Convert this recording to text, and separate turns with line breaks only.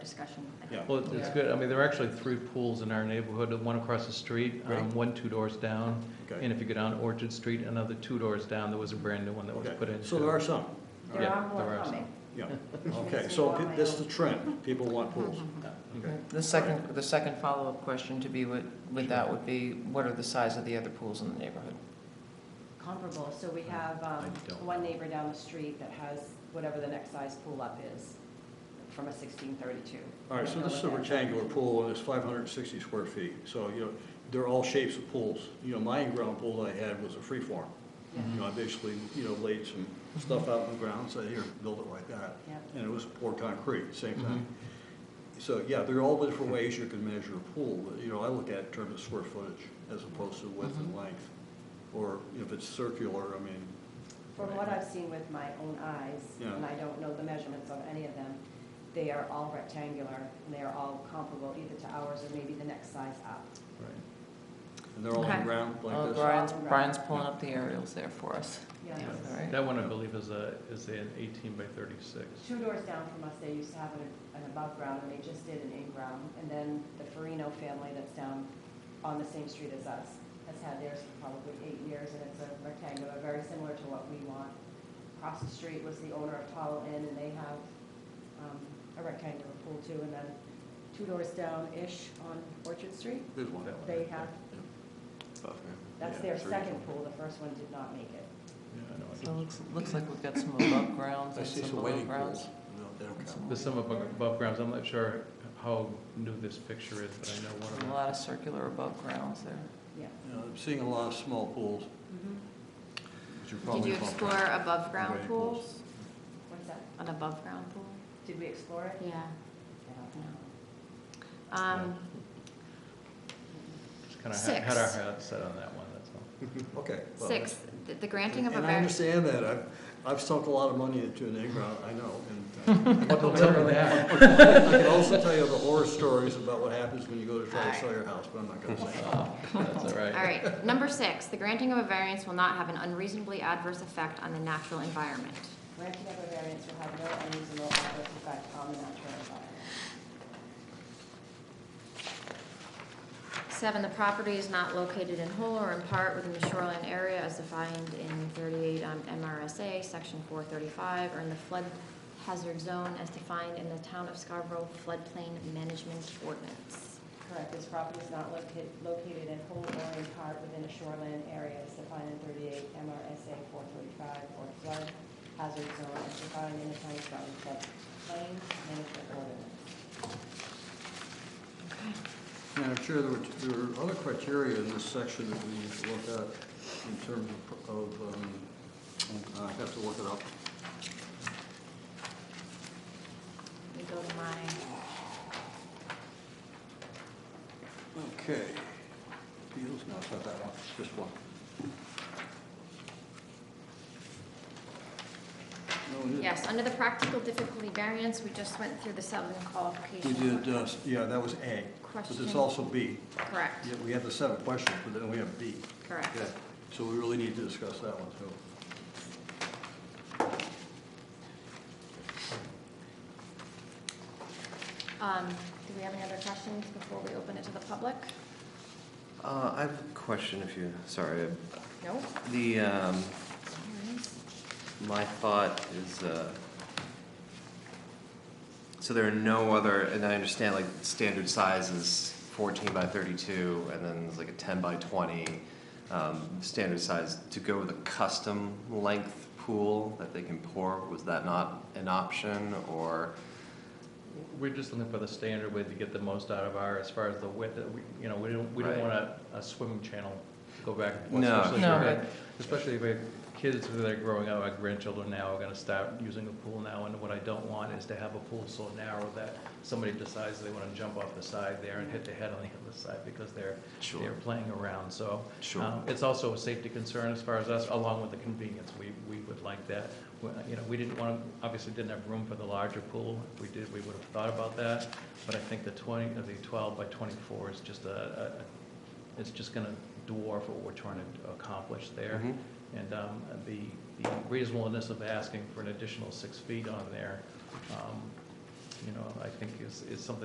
discussion with them.
Yeah.
Well, it's good, I mean, there are actually three pools in our neighborhood, one across the street, um,
Right.
one two doors down,
Okay.
and if you go down Orchard Street, another two doors down, there was a brand-new one that was
Okay.
put in.
So there are some,
There
Yeah,
are
there
more
are
coming.
yeah. Okay, so pe- this is the trend, people want pools. Okay.
The second, the second follow-up question to be with, with that would be, what are the size of the other pools in the neighborhood?
comparable. So we have um,
I don't
one
know.
neighbor down the street that has whatever the next size pool up is from a sixteen thirty-two.
All right, so this is a rectangular pool, and it's five hundred and sixty square feet, so, you know, they're all shapes of pools. You know, my in-ground pool that I had was a free form. You
Mm-hmm.
know, I basically, you know, laid some stuff out in the ground, said, here, build it like that.
Yep.
And it was poured concrete, same thing.
Mm-hmm.
So, yeah, there are all different ways you can measure a pool, but, you know, I look at it in terms of square footage as opposed to width and length. Or if it's circular, I mean,
From what I've seen with my own eyes,
Yeah.
and I don't know the measurements of any of them, they are all rectangular and they are all comparable either to ours or maybe the next size up.
and they're all
Okay.
in ground like
Oh,
this.
Brian's, Brian's pulling up the aerials there for us.
Yeah.
Yeah, all right.
That one, I believe, is a, is an eighteen by thirty-six.
Two doors down from us, they used to have an, an above ground and they just did an in-ground. And then the Farino family that's down on the same street as us has had theirs for probably eight years and it's a rectangular, very similar to what we want. Across the street was the owner of Tall Inn and they have, um, a rectangular pool too. And then two doors down-ish on Orchard Street,
There's one.
they have, that's
Yeah,
their
three.
second pool, the first one did not make it.
Yeah, I know.
So it looks, looks like we've got some above grounds
I
and
see
some
some
below
waiting
grounds.
pools. No, they don't count.
There's some above above grounds, I'm not sure how new this picture is, but I know one of
There's
them.
a lot of circular above grounds there.
Yeah.
You know, I'm seeing a lot of small pools.
Mm-hmm.
which are
Did
probably
you
above
explore
ground.
above-ground
Right,
pools?
What's that?
An above-ground pool?
Did we explore it?
Yeah.
Yeah.
Um,
Just kind of
Six.
had our head set on that one, that's all.
Okay. well,
Six, th- the granting of a
And I
var,
understand that. I've, I've sunk a lot of money into an in-ground, I know. and, uh,
Well, tell me that.
I can also tell you the horror stories about what happens when you go to try to sell your house, but I'm not gonna say that.
That's all
all
right.
right. Number six, the granting of a variance will not have an unreasonably adverse effect on the natural environment.
Granting of a variance will have no unreasonable adverse effect on the natural environment.
Seven, the property is not located in whole or in part within the shoreline area as defined in thirty-eight um, MRSA, section four thirty-five, or in the flood hazard zone as defined in the town of Scarborough floodplain management ordinance.
Correct, this property is not located, located in whole or in part within a shoreline area as defined in thirty-eight MRSA four thirty-five or flood hazard zone as defined in the town of Groton floodplain management ordinance.
Okay.
Madam Chair, there were, there were other criteria in this section that we need to look at in terms of, of, um, I have to look it up.
Let me go to my
Okay. Appeals, no, it's not that one, it's just one. No, it is.
Yes, under the practical difficulty variance, we just went through the seven
We
qualifications.
did, uh, yeah, that was A, but it's
Question.
also B.
Correct,
Yeah, we have the seven questions, but then we have B.
correct.
Yeah, so we really need to discuss that one too.
Um, do we have any other questions before we open it to the public?
Uh, I have a question if you, sorry.
No?
The, um,
There it is.
my thought is, uh, so there are no other, and I understand like standard size is fourteen by thirty-two, and then there's like a ten by twenty, um, standard size. To go with a custom length pool that they can pour, was that not an option, or?
We're just looking for the standard way to get the most out of our, as far as the width, that we- you know, we don't, we don't
Right.
want a, a swimming channel to go back. and forth,
No.
especially
No,
if-
right.
Especially if we have kids that are growing up, our grandchildren now are gonna start using a pool now, and what I don't want is to have a pool so narrow that somebody decides they wanna jump off the side there and hit their head on the other side because they're,
Sure.
they're playing around, so.
Sure.
um, It's also a safety concern as far as us, along with the convenience, we, we would like that. We- You know, we didn't want, to obviously didn't have room for the larger pool, if we did, we would have thought about that, but I think the twenty, uh, the twelve by twenty-four is just a, a- it's just gonna dwarf what we're trying to accomplish there.
Mhm.
And um, the the reasonableness of asking for an additional six feet on there, um, you know, I think is, is something